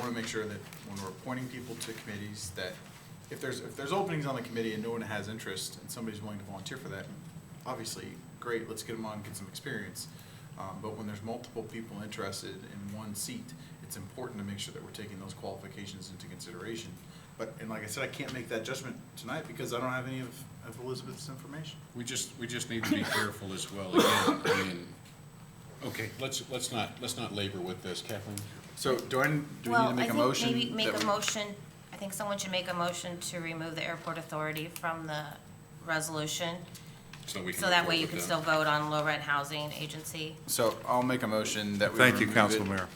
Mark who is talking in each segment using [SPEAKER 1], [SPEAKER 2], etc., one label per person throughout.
[SPEAKER 1] want to make sure that when we're appointing people to committees, that if there's, if there's openings on the committee and no one has interest and somebody's willing to volunteer for that, obviously, great, let's get them on, get some experience. Um, But when there's multiple people interested in one seat, it's important to make sure that we're taking those qualifications into consideration. But, and like I said, I can't make that judgment tonight because I don't have any of of Elizabeth's information.
[SPEAKER 2] We just, we just need to be careful as well, again, I mean, okay, let's, let's not, let's not labor with this, Kathleen.
[SPEAKER 1] So do I, do we need
[SPEAKER 3] Well,
[SPEAKER 1] to make
[SPEAKER 3] I
[SPEAKER 1] a
[SPEAKER 3] think
[SPEAKER 1] motion?
[SPEAKER 3] Maybe
[SPEAKER 1] that
[SPEAKER 3] make a
[SPEAKER 1] we-
[SPEAKER 3] motion, I think someone should make a motion to remove the airport authority from the resolution.
[SPEAKER 2] So we can
[SPEAKER 3] So
[SPEAKER 2] move
[SPEAKER 3] that way
[SPEAKER 2] forward
[SPEAKER 3] you can
[SPEAKER 2] with
[SPEAKER 3] still vote on low rent housing agency.
[SPEAKER 1] So I'll make a motion that we.
[SPEAKER 4] Thank you,
[SPEAKER 1] remove it-
[SPEAKER 4] Council Mayor.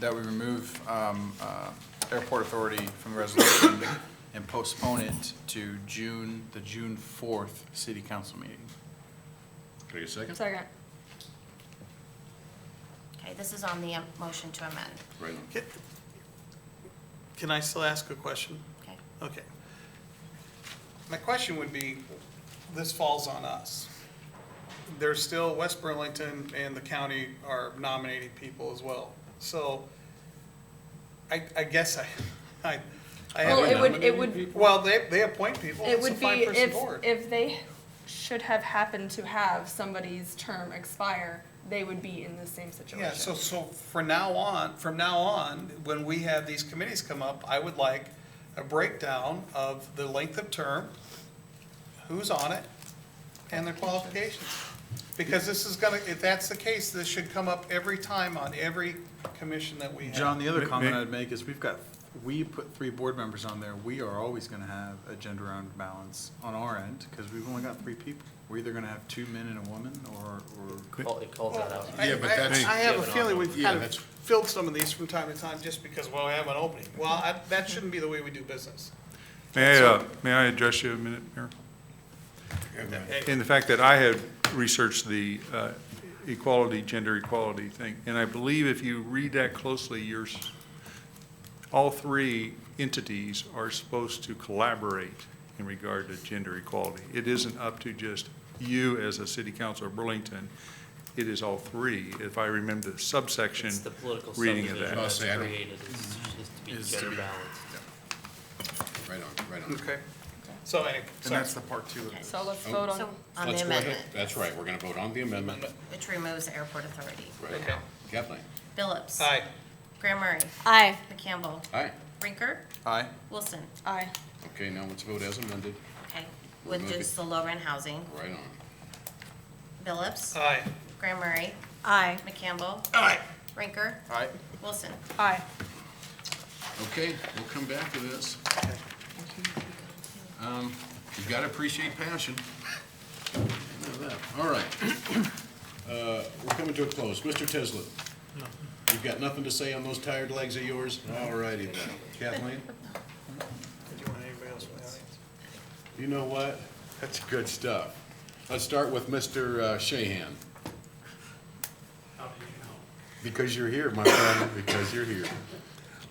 [SPEAKER 1] That we remove um, uh, airport authority from the resolution and postpone it to June, the June 4th city council meeting.
[SPEAKER 2] Can I get a second?
[SPEAKER 5] Second.
[SPEAKER 3] Okay, this is on the um, motion to amend,
[SPEAKER 2] Right on.
[SPEAKER 6] Ca- Can I still ask a question?
[SPEAKER 3] okay?
[SPEAKER 6] Okay. My question would be, this falls on us. There's still, West Burlington and the county are nominating people as well. So I, I guess I, I, I
[SPEAKER 5] Well, it
[SPEAKER 6] have,
[SPEAKER 5] would, it would,
[SPEAKER 6] well, they, they appoint people.
[SPEAKER 5] it
[SPEAKER 6] It's a
[SPEAKER 5] would be
[SPEAKER 6] five-person
[SPEAKER 5] if,
[SPEAKER 6] board.
[SPEAKER 5] if they should have happened to have somebody's term expire, they would be in the same
[SPEAKER 6] Yeah, so,
[SPEAKER 5] situation.
[SPEAKER 6] so for now on, from now on, when we have these committees come up, I would like a breakdown of the length of term, who's on it, and their qualifications. Because this is gonna, if that's the case, this should come up every time on every commission that we have.
[SPEAKER 1] John, the other
[SPEAKER 4] May-
[SPEAKER 1] comment
[SPEAKER 4] may-
[SPEAKER 1] I'd make is we've got, we put three board members on there. We are always going to have a gender round balance on our end because we've only got three people. We're either going to have two men and a woman or, or
[SPEAKER 7] Call- It calls that out.
[SPEAKER 6] I-
[SPEAKER 2] Yeah, but
[SPEAKER 6] I-
[SPEAKER 2] that's-
[SPEAKER 6] I have a feeling we've
[SPEAKER 2] Yeah,
[SPEAKER 6] kind of
[SPEAKER 2] that's-
[SPEAKER 6] filled some of these from time to time just because, well, we have an opening. Well, I- that shouldn't be the way we do business.
[SPEAKER 4] May I, uh, may I address you a minute, Mayor? In the fact that I had researched the uh, equality, gender equality thing, and I believe if you read that closely, you're, s- all three entities are supposed to collaborate in regard to gender equality. It isn't up to just you as a city council of Burlington, it is all three, if I remember the subsection
[SPEAKER 7] It's the political
[SPEAKER 4] reading
[SPEAKER 7] subdivision
[SPEAKER 4] of that.
[SPEAKER 7] that's
[SPEAKER 2] I'll say I don't-
[SPEAKER 7] created, is to be
[SPEAKER 1] Is to
[SPEAKER 7] gender
[SPEAKER 1] be-
[SPEAKER 7] balanced.
[SPEAKER 2] Right on, right on.
[SPEAKER 6] Okay. So anyway,
[SPEAKER 1] and
[SPEAKER 6] sorry.
[SPEAKER 1] that's the part two of this.
[SPEAKER 5] So
[SPEAKER 6] Oh.
[SPEAKER 5] let's vote
[SPEAKER 3] So
[SPEAKER 5] on,
[SPEAKER 3] on
[SPEAKER 2] Let's
[SPEAKER 3] the
[SPEAKER 2] go ahead.
[SPEAKER 3] amendment,
[SPEAKER 2] That's right, we're gonna vote on the amendment.
[SPEAKER 3] which removes the airport authority.
[SPEAKER 2] Right.
[SPEAKER 6] Okay.
[SPEAKER 2] Kathleen,
[SPEAKER 3] Phillips.
[SPEAKER 6] Aye.
[SPEAKER 3] Graham Murray.
[SPEAKER 5] aye.
[SPEAKER 3] McCampbell.
[SPEAKER 2] aye.
[SPEAKER 3] Rinker.
[SPEAKER 1] Aye.
[SPEAKER 3] Wilson.
[SPEAKER 5] Aye.
[SPEAKER 2] Okay, now let's vote as amended,
[SPEAKER 3] Okay, with
[SPEAKER 2] Remove it.
[SPEAKER 3] just the low rent housing.
[SPEAKER 2] right on.
[SPEAKER 3] Phillips.
[SPEAKER 6] Aye.
[SPEAKER 3] Graham Murray.
[SPEAKER 5] Aye.
[SPEAKER 3] McCampbell.
[SPEAKER 6] Aye.
[SPEAKER 3] Rinker.
[SPEAKER 1] Aye.
[SPEAKER 3] Wilson.
[SPEAKER 5] Aye.
[SPEAKER 2] Okay, we'll come back to this. Um, You gotta appreciate passion. I know that. All right. Uh, We're coming to a close. Mr. Tislett? You've got nothing to say on those tired legs of yours? All righty then. Kathleen?
[SPEAKER 6] Did you want anybody else from the audience?
[SPEAKER 2] You know what? That's good stuff. Let's start with Mr. uh, Shahan. Because you're here, my friend, because you're here.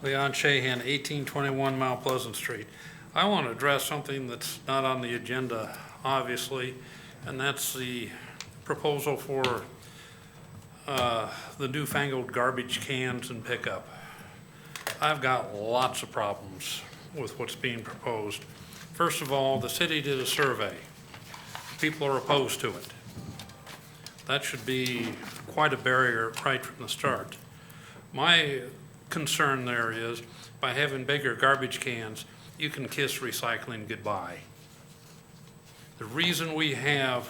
[SPEAKER 8] Leon Shahan, 1821 Mount Pleasant Street. I want to address something that's not on the agenda, obviously, and that's the proposal for uh, the newfangled garbage cans and pickup. I've got lots of problems with what's being proposed. First of all, the city did a survey. People are opposed to it. That should be quite a barrier right from the start. My concern there is, by having bigger garbage cans, you can kiss recycling goodbye. The reason we have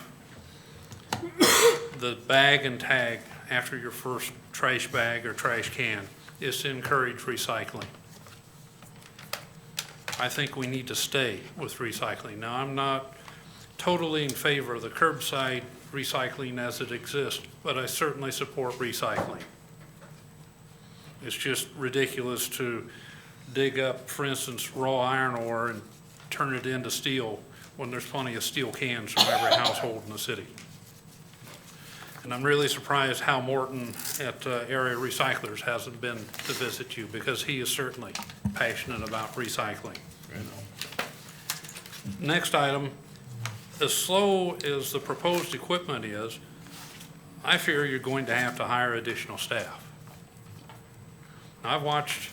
[SPEAKER 8] the bag and tag after your first trash bag or trash can is to encourage recycling. I think we need to stay with recycling. Now, I'm not totally in favor of the curbside recycling as it exists, but I certainly support recycling. It's just ridiculous to dig up, for instance, raw iron ore and turn it into steel when there's plenty of steel cans from every household in the city. And I'm really surprised how Morton at uh, Area Recyclers hasn't been to visit you because he is certainly passionate about recycling. Next item, as slow as the proposed equipment is, I fear you're going to have to hire additional staff. I've watched